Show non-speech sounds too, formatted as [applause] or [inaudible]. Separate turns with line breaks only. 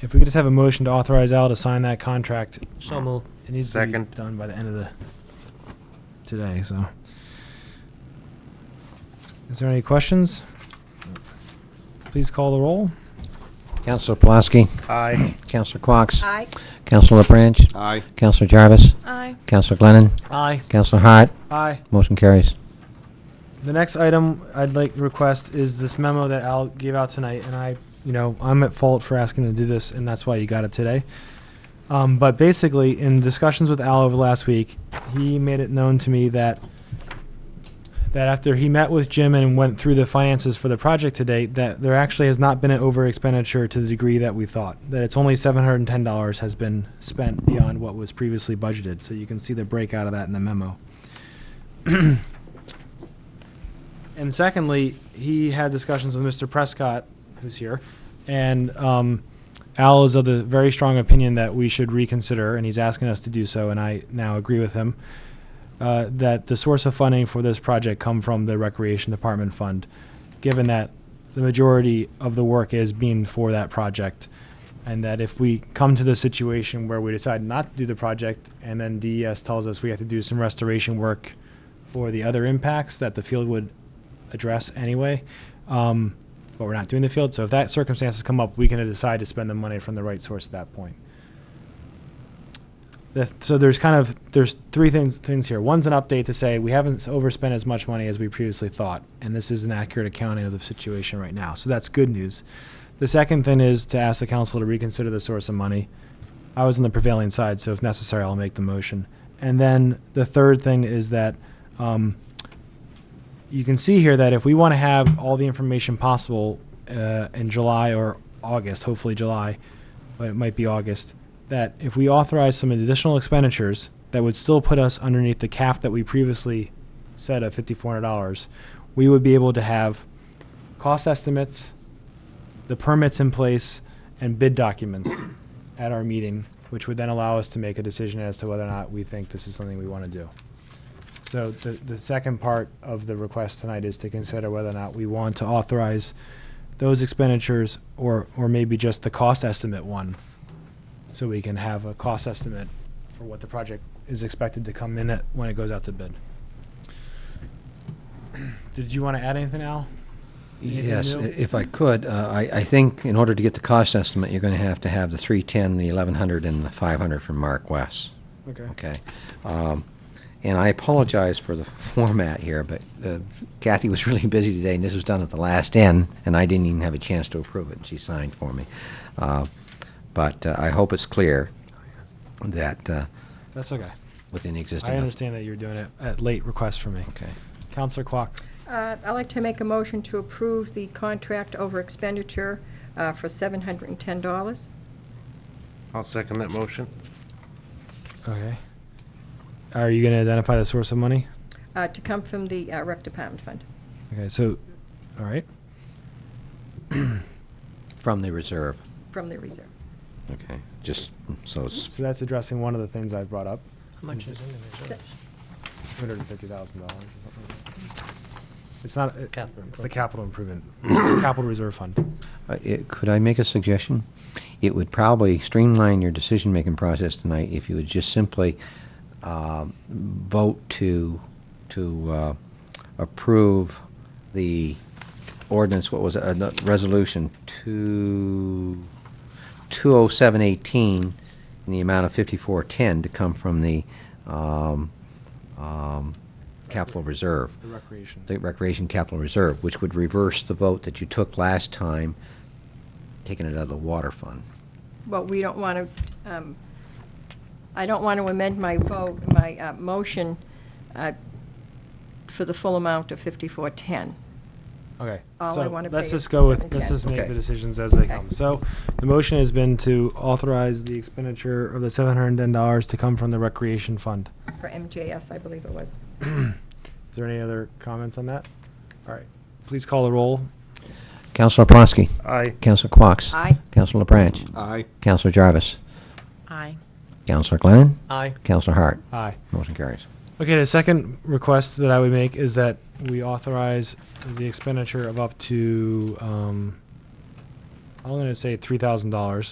If we could just have a motion to authorize Al to sign that contract,
So moved.
it needs to be
Second.
done by the end of the, today, so. Is there any questions? Please call the roll.
Counselor Pulaski,
Aye.
Counselor Quox,
Aye.
Counselor LaBranch,
Aye.
Counselor Jarvis,
Aye.
Counselor Glennon,
Aye.
Counselor Hart,
Aye.
motion carries.
The next item I'd like to request is this memo that Al gave out tonight, and I, you know, I'm at fault for asking to do this, and that's why you got it today. Um, but basically, in discussions with Al over the last week, he made it known to me that that after he met with Jim and went through the finances for the project to date, that there actually has not been an over expenditure to the degree that we thought. That it's only seven hundred and ten dollars has been spent beyond what was previously budgeted. So you can see the breakout of that in the memo. And secondly, he had discussions with Mr. Prescott, who's here, and um, Al is of the very strong opinion that we should reconsider, and he's asking us to do so, and I now agree with him, uh, that the source of funding for this project come from the Recreation Department Fund, given that the majority of the work is being for that project, and that if we come to the situation where we decide not to do the project, and then DES tells us we have to do some restoration work for the other impacts that the field would address anyway. Um, but we're not doing the field, so if that circumstances come up, we can decide to spend the money from the right source at that point. The- so there's kind of there's three things things here. One's an update to say we haven't overspent as much money as we previously thought, and this is an accurate accounting of the situation right now. So that's good news. The second thing is to ask the council to reconsider the source of money. I was on the prevailing side, so if necessary, I'll make the motion. And then the third thing is that um, you can see here that if we want to have all the information possible uh, in July or August, hopefully July, but it might be August, that if we authorize some additional expenditures that would still put us underneath the cap that we previously said of $5,400, we would be able to have cost estimates, the permits in place, and bid documents at our meeting, which would then allow us to make a decision as to whether or not we think this is something we want to do. So the, the second part of the request tonight is to consider whether or not we want to authorize those expenditures or, or maybe just the cost estimate one. So we can have a cost estimate for what the project is expected to come in at when it goes out to bid. Did you want to add anything, Al? Anything
Yes, i-
new?
if I could, uh, I, I think in order to get the cost estimate, you're going to have to have the 310, the 1100, and the 500 from Mark West.
Okay.
Okay. Um, And I apologize for the [laughs] format here, but uh, Kathy was really busy today, and this was done at the last end, and I didn't even have a chance to approve it, and she signed for me. Uh, But uh, I hope it's clear that uh,
That's okay.
within the existing...
I understand that you're doing it at late request for me.
Okay.
Counselor Quox,
Uh, I'd like to make a motion to approve the contract over expenditure uh, for $710.
I'll second that motion.
okay. Are you going to identify the source of money?
uh, to come from the uh, Rec Department Fund.
Okay, so, all right.
From the reserve.
From the reserve.
Okay. Just, so it's
So that's addressing one of the things I brought up,
How much is in the reserves?
two hundred and fifty thousand dollars or something. like that. It's not, it-
Capital
it's the capital improvement,
[coughs]
capital reserve fund.
Uh, it- Could I make a suggestion? It would probably streamline your decision-making process tonight if you would just simply um, vote to, to uh, approve the ordinance, what was it, uh, no, Resolution 2, 20718, in the amount of 5410 to come from the um, um, capital reserve
The recreation.
the Recreation Capital Reserve, which would reverse the vote that you took last time, taking it out of the water fund.
Well, we don't want to, I don't want to amend my vote, my uh, motion uh, for the full amount of 5410.
Okay.
All I
so
wanna
Let's
pay is
just go with, let's
710.
just make
Okay.
the decisions as they
Okay.
come. So the motion has been to authorize the expenditure of the seven hundred and ten dollars to come from the recreation fund.
For MJS, I believe it was.
Is there any other comments on that? All right, please call the roll.
Counselor Prosky.
Aye.
Counselor Quox.
Aye.
Counselor LaBranch.
Aye.
Counselor Jarvis.
Aye.
Counselor Glennon.
Aye.
Counselor Hart.
Aye.
Motion carries.
Okay, the second request that I would make is that we authorize the expenditure of up to, um, I'm gonna say three thousand dollars